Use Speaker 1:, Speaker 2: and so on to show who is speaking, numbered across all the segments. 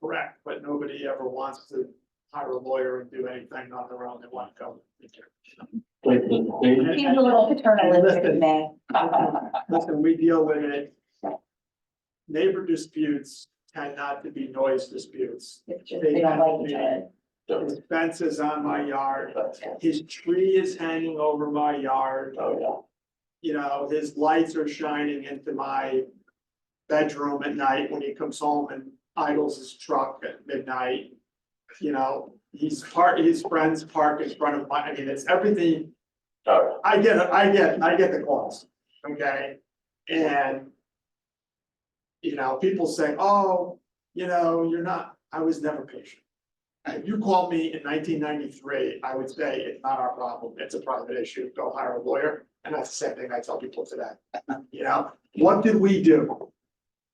Speaker 1: correct, but nobody ever wants to hire a lawyer and do anything on their own, they want to go.
Speaker 2: Like the, they,
Speaker 3: Seems a little paternalistic to me.
Speaker 1: Listen, we deal with it. Neighbor disputes tend not to be noise disputes.
Speaker 3: It's just they don't like each other.
Speaker 1: His fence is on my yard,
Speaker 2: that's,
Speaker 1: his tree is hanging over my yard,
Speaker 2: oh,
Speaker 1: you know, his lights are shining into my bedroom at night when he comes home and idles his truck at midnight. You know, he's park, his friends park in front of my, I mean, it's everything
Speaker 2: yeah, oh,
Speaker 1: I get, it, I get, I get the calls, okay? And. You know, people say, oh, you know, you're not, I was never patient. If you called me in nineteen ninety-three, I would say it's not our problem, it's a private issue, go hire a lawyer, and that's the same thing I tell people today. You know, what did we do?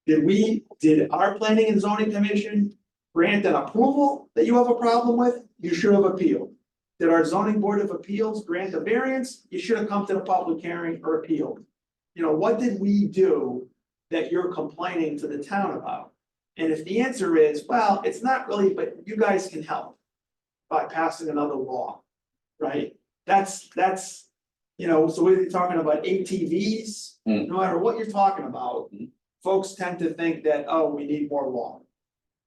Speaker 1: Did we, did our planning and zoning commission grant an approval that you have a problem with? You should have appealed. Did our zoning board of appeals grant a variance? You should have come to the public hearing or appealed. You know, what did we do that you're complaining to the town about? And if the answer is, well, it's not really, but you guys can help by passing another law, right? That's, that's, you know, so we're talking about ATVs,
Speaker 2: Hmm.
Speaker 1: no matter what you're talking about,
Speaker 2: Hmm.
Speaker 1: folks tend to think that, oh, we need more law.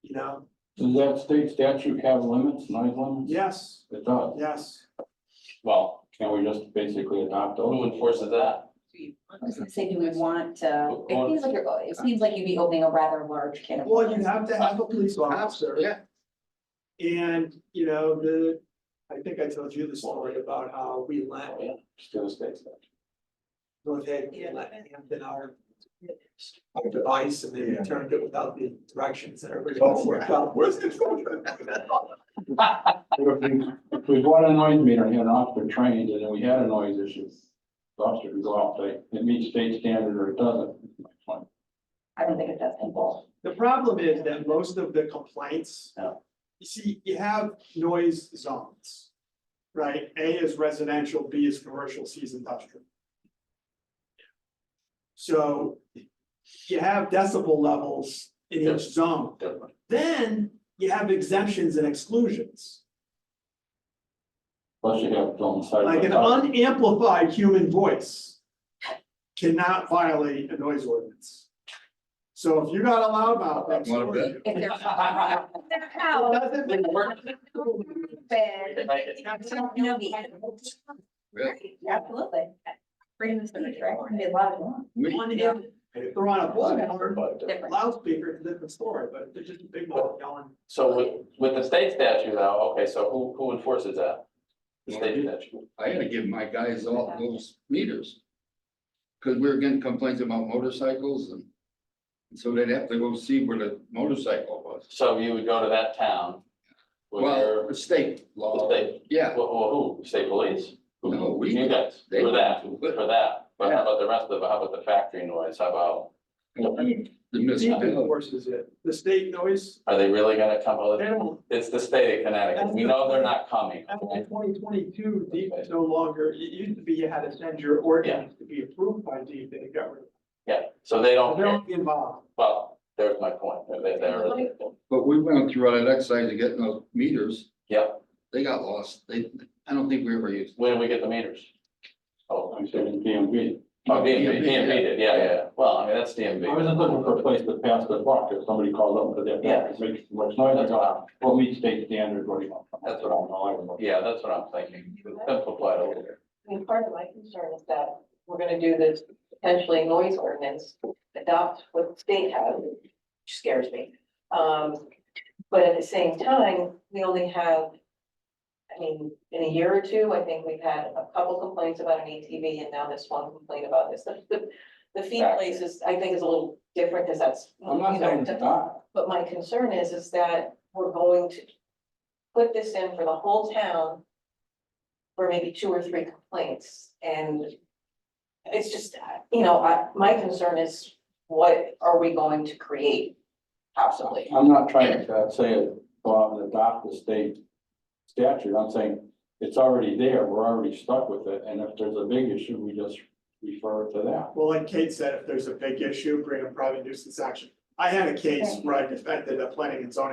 Speaker 1: You know,
Speaker 2: yeah. Does that state statute have limits, noise limits?
Speaker 1: yes,
Speaker 2: It does.
Speaker 1: yes,
Speaker 2: Well, can we just basically adopt those?
Speaker 4: Who enforces that?
Speaker 3: I was gonna say, do we want to, it
Speaker 4: Well-
Speaker 3: seems like you're, it seems like you'd be opening a rather large can of
Speaker 1: well, you
Speaker 3: worms.
Speaker 1: have to have a police officer. And, you know, the, I think I told you the story about how we
Speaker 2: Oh,
Speaker 1: let
Speaker 2: yeah, Just do the state statute.
Speaker 1: North Haven, let Hampton our. Our device and they returned it without the directions and everybody else worked out. Oh, Where's the?
Speaker 2: If we- if we bought a noise meter and had an officer trained, and then we had a noise issue, the officer could go out, like, it meets state standard or it doesn't.
Speaker 3: I don't think it does involve.
Speaker 1: The problem is that most of the complaints.
Speaker 2: Yeah.
Speaker 1: You see, you have noise zones. Right? A is residential, B is commercial, C is industrial. So you have decibel levels in
Speaker 4: Yeah.
Speaker 1: each zone.
Speaker 4: Different.
Speaker 1: Then you have exemptions and exclusions,
Speaker 2: Plus you have on side.
Speaker 1: like an unamplified human voice. Cannot violate a noise ordinance. So if you got a loudmouth next
Speaker 5: One
Speaker 1: door
Speaker 5: of
Speaker 1: to you.
Speaker 3: If they're. Their
Speaker 1: it
Speaker 3: cow.
Speaker 1: doesn't make
Speaker 3: Bed. No, the animal.
Speaker 5: Yeah.
Speaker 3: Absolutely. Bring this to the track, they love it.
Speaker 5: We-
Speaker 1: one amp- if they're on a bullhorn,
Speaker 3: Different.
Speaker 1: loudspeaker, it's a different story, but they're just a big mouth yelling.
Speaker 4: So with, with the state statute though, okay, so who, who enforces that? The state statute.
Speaker 5: I had to give my guys all those meters. Cause we were getting complaints about motorcycles and. and So they'd have to go see where the motorcycle was.
Speaker 4: So you would go to that town with
Speaker 5: Well,
Speaker 4: your,
Speaker 5: the state
Speaker 4: the
Speaker 5: law,
Speaker 4: state,
Speaker 5: yeah,
Speaker 4: well, well, who, state police? Who-
Speaker 5: No, we-
Speaker 4: You guys,
Speaker 5: they-
Speaker 4: for that, for that, but how about the rest of, how about the factory noise, how about,
Speaker 5: the
Speaker 1: Deep
Speaker 5: municipal,
Speaker 1: enforces it, the state noise,
Speaker 4: are they really gonna come?
Speaker 1: they don't,
Speaker 4: It's the state of Connecticut, we know they're not coming,
Speaker 1: after twenty twenty-two, deep is no longer, it used to be you had to send your ordinance to be approved by deep, they got rid of it.
Speaker 4: yeah, so
Speaker 1: But
Speaker 4: they don't,
Speaker 1: They
Speaker 4: care.
Speaker 1: don't get involved,
Speaker 4: well, there's my point, they're, they're,
Speaker 5: but we went through all that exercise of getting those meters,
Speaker 4: yeah,
Speaker 5: they got lost, they, I don't think we ever used.
Speaker 4: when do we get the meters? Oh,
Speaker 2: I'm saying DMV.
Speaker 4: Oh, DMV, DMV did, yeah, yeah, well, I mean, that's
Speaker 2: I was
Speaker 4: DMV.
Speaker 2: just looking for a place to pass the buck, if somebody called up for that,
Speaker 4: Yeah.
Speaker 2: that makes much noise, I
Speaker 4: That's
Speaker 2: go,
Speaker 4: what I'm,
Speaker 2: well, meet state standard, what do you want?
Speaker 4: That's what I'm- yeah, that's what I'm thinking, simplify it a little bit.
Speaker 6: I mean, part of my concern is that we're gonna do this potentially noise ordinance, adopt what the state has, which scares me. Um, but at the same time, we only have, I mean, in a year or two, I think we've had a couple complaints about an ATV and now this one complaint about this. The- The, the fee place is, I think is a little different because that's.
Speaker 2: I'm not
Speaker 6: you know,
Speaker 2: saying it's not,
Speaker 6: but my concern is, is that we're going to put this in for the whole town for maybe two or three complaints, and it's just, you know, I, my concern is what are we going to create possibly?
Speaker 2: I'm not trying to uh, say, it, go out and adopt the state statute, I'm saying it's already there, we're already stuck with it, and if there's a big issue, we just refer it to that.
Speaker 1: well, like Kate said, if there's a big issue, bring a private nuisance action. I had a case where I defended a planning and zoning